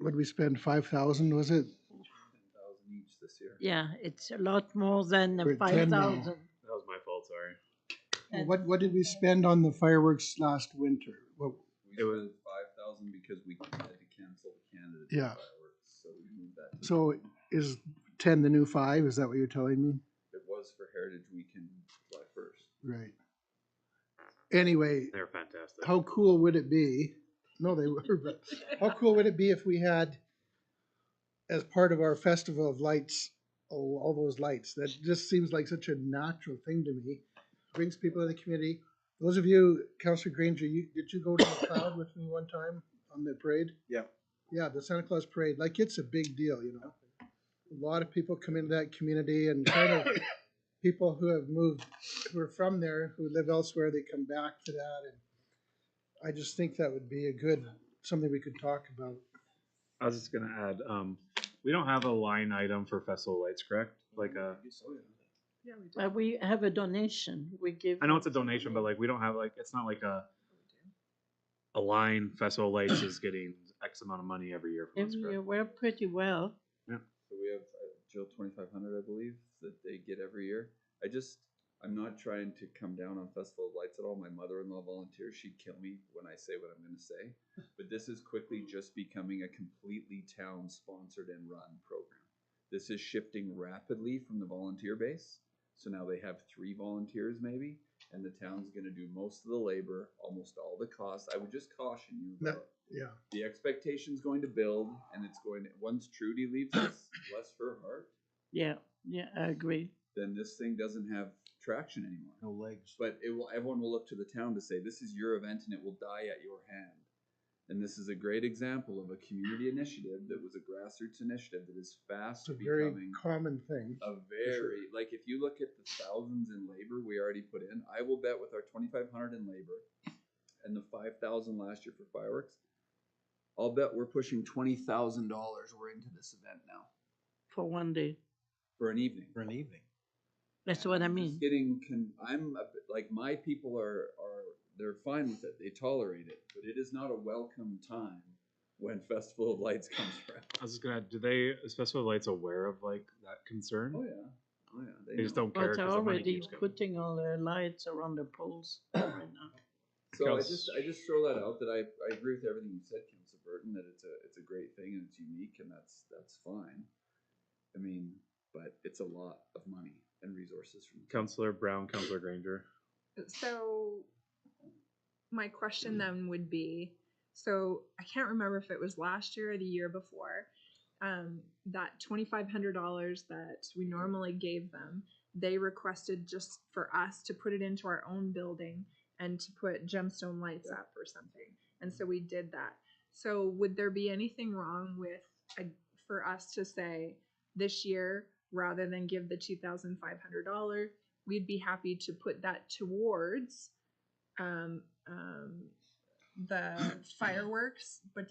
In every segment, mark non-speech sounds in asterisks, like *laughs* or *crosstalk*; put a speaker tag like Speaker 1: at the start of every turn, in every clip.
Speaker 1: Would we spend five thousand, was it?
Speaker 2: thousand each this year.
Speaker 3: Yeah, it's a lot more than
Speaker 1: We're
Speaker 3: the
Speaker 1: at 10
Speaker 3: five
Speaker 1: now.
Speaker 3: thousand.
Speaker 2: That was my fault, sorry.
Speaker 3: And-
Speaker 1: What, what did we spend on the fireworks last winter? What,
Speaker 2: It was five thousand because we had to cancel the candidate
Speaker 1: Yeah.
Speaker 2: fireworks, so we moved that. to-
Speaker 1: so is ten the new five? Is that what you're telling me?
Speaker 2: It was for Heritage Weekend, July first.
Speaker 1: Right. Anyway,
Speaker 4: They're fantastic.
Speaker 1: how cool would it be? No, they were, but how cool would it be if we had, as part of our festival of lights, oh, all those lights? That just seems like such a natural thing to me. Brings people in the community. Those of you, Counselor Granger, you, did you go to the cloud with me one time on the parade?
Speaker 2: Yeah.
Speaker 1: Yeah, the Santa Claus parade. Like it's a big deal, you know. A lot of people come into that community and kind of people who have moved, who are from there, who live elsewhere, they come back to that and I just think that would be a good, something we could talk about.
Speaker 4: I was just gonna add, um, we don't have a line item for festival lights, correct? Like a,
Speaker 3: But we have a donation, we give.
Speaker 4: I know it's a donation, but like we don't have like it's not like a a line festival lights is getting X amount of money every year from us,
Speaker 3: Every year,
Speaker 4: correct?
Speaker 3: we're pretty well.
Speaker 2: So we have uh, Jill twenty five hundred, I believe, that they get every year. I just I'm not trying to come down on Festival of Lights at all. My mother in law volunteers. She'd kill me when I say what I'm going to say. But this is quickly just becoming a completely town sponsored and run program. This is shifting rapidly from the volunteer base. So now they have three volunteers maybe, and the town's going to do most of the labor, almost all the costs. I would just caution you.
Speaker 1: No.
Speaker 2: about
Speaker 1: Yeah.
Speaker 2: the expectation's going to build and it's going to, once Trudy leaves us,
Speaker 1: *coughs*
Speaker 2: bless her heart,
Speaker 3: Yeah, yeah, I agree.
Speaker 2: then this thing doesn't have traction anymore.
Speaker 1: No legs.
Speaker 2: But it will everyone will look to the town to say, This is your event and it will die at your hand. And this is a great example of a community initiative that was a grassroots initiative that is fast
Speaker 1: It's a very
Speaker 2: becoming
Speaker 1: common thing.
Speaker 2: a very like if you look at the thousands in labor we already put in, I will bet with our twenty five hundred in labor and the five thousand last year for fireworks, I'll bet we're pushing twenty thousand dollars we're into this event now
Speaker 3: For one day,
Speaker 2: for an evening.
Speaker 5: for an evening.
Speaker 3: that's what I
Speaker 2: I'm just
Speaker 3: mean.
Speaker 2: Getting con- I'm a bit- like my people are are they're fine with it. They tolerate it, but it is not a welcome time when Festival of Lights comes around.
Speaker 4: I was just gonna add, do they is festival lights aware of like that concern?
Speaker 2: Oh yeah, oh yeah.
Speaker 4: They just
Speaker 2: know.
Speaker 4: don't care
Speaker 3: But are
Speaker 4: because the money
Speaker 3: already
Speaker 4: keeps going.
Speaker 3: putting all the lights around the poles *coughs* right now.
Speaker 2: So I
Speaker 4: Because-
Speaker 2: just I just throw that out that I, I agree with everything you said, Council Burton, that it's a it's a great thing and it's unique and that's that's fine. I mean, but it's a lot of money and resources from the
Speaker 4: Councillor Brown, Councillor Granger.
Speaker 6: So my question then would be, so I can't remember if it was last year or the year before, um, that twenty-five hundred dollars that we normally gave them, they requested just for us to put it into our own building and to put gemstone lights up or something. And so we did that. So would there be anything wrong with, uh, for us to say this year, rather than give the two thousand five hundred dollar, we'd be happy to put that towards um, um, the fireworks, but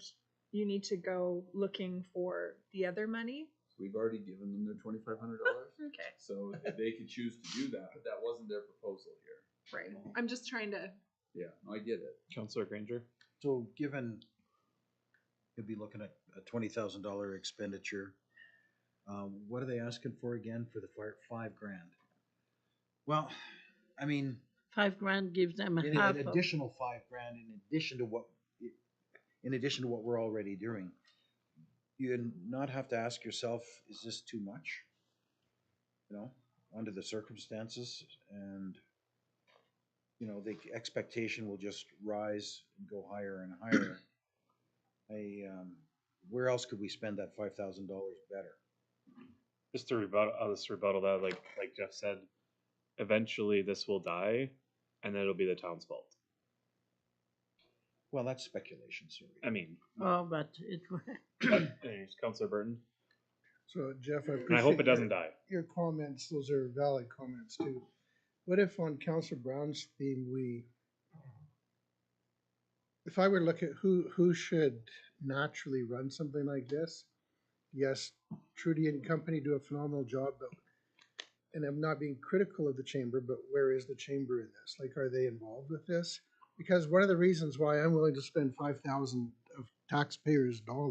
Speaker 6: you need to go looking for the other money.
Speaker 2: We've already given them their twenty five hundred dollars.
Speaker 6: Okay.
Speaker 2: So if they could choose to do that, but that wasn't their proposal here.
Speaker 6: Right. I'm just trying to.
Speaker 2: Yeah, no, I get it.
Speaker 4: Councillor Granger.
Speaker 5: So given, you'll be looking at a twenty thousand dollar expenditure. Um, what are they asking for again for the fire, five grand? Well, I mean,
Speaker 3: Five grand gives them
Speaker 5: an
Speaker 3: half
Speaker 5: an
Speaker 3: of,
Speaker 5: additional five grand in addition to what, in addition to what we're already doing. You not have to ask yourself, is this too much? You know, under the circumstances and, you know, the expectation will just rise and go higher and higher. *clears throat* I, um, where else could we spend that five thousand dollars better?
Speaker 4: just to rebuttal, I'll just rebuttal that. Like like Jeff said, eventually this will die, and then it'll be the town's fault.
Speaker 5: Well, that's speculation, sir.
Speaker 4: I mean,
Speaker 3: oh, but it, *laughs*
Speaker 4: there's Councillor Burton,
Speaker 1: So Jeff, I
Speaker 4: and I hope it
Speaker 1: appreciate
Speaker 4: doesn't
Speaker 1: your,
Speaker 4: die.
Speaker 1: your comments. Those are valid comments too. What if on Council Brown's theme, we, if I were to look at who, who should naturally run something like this? Yes, Trudy and company do a phenomenal job, but, and I'm not being critical of the chamber, but where is the chamber in this? Like, are they involved with this? Because one of the reasons why I'm willing to spend five thousand of taxpayers' dollars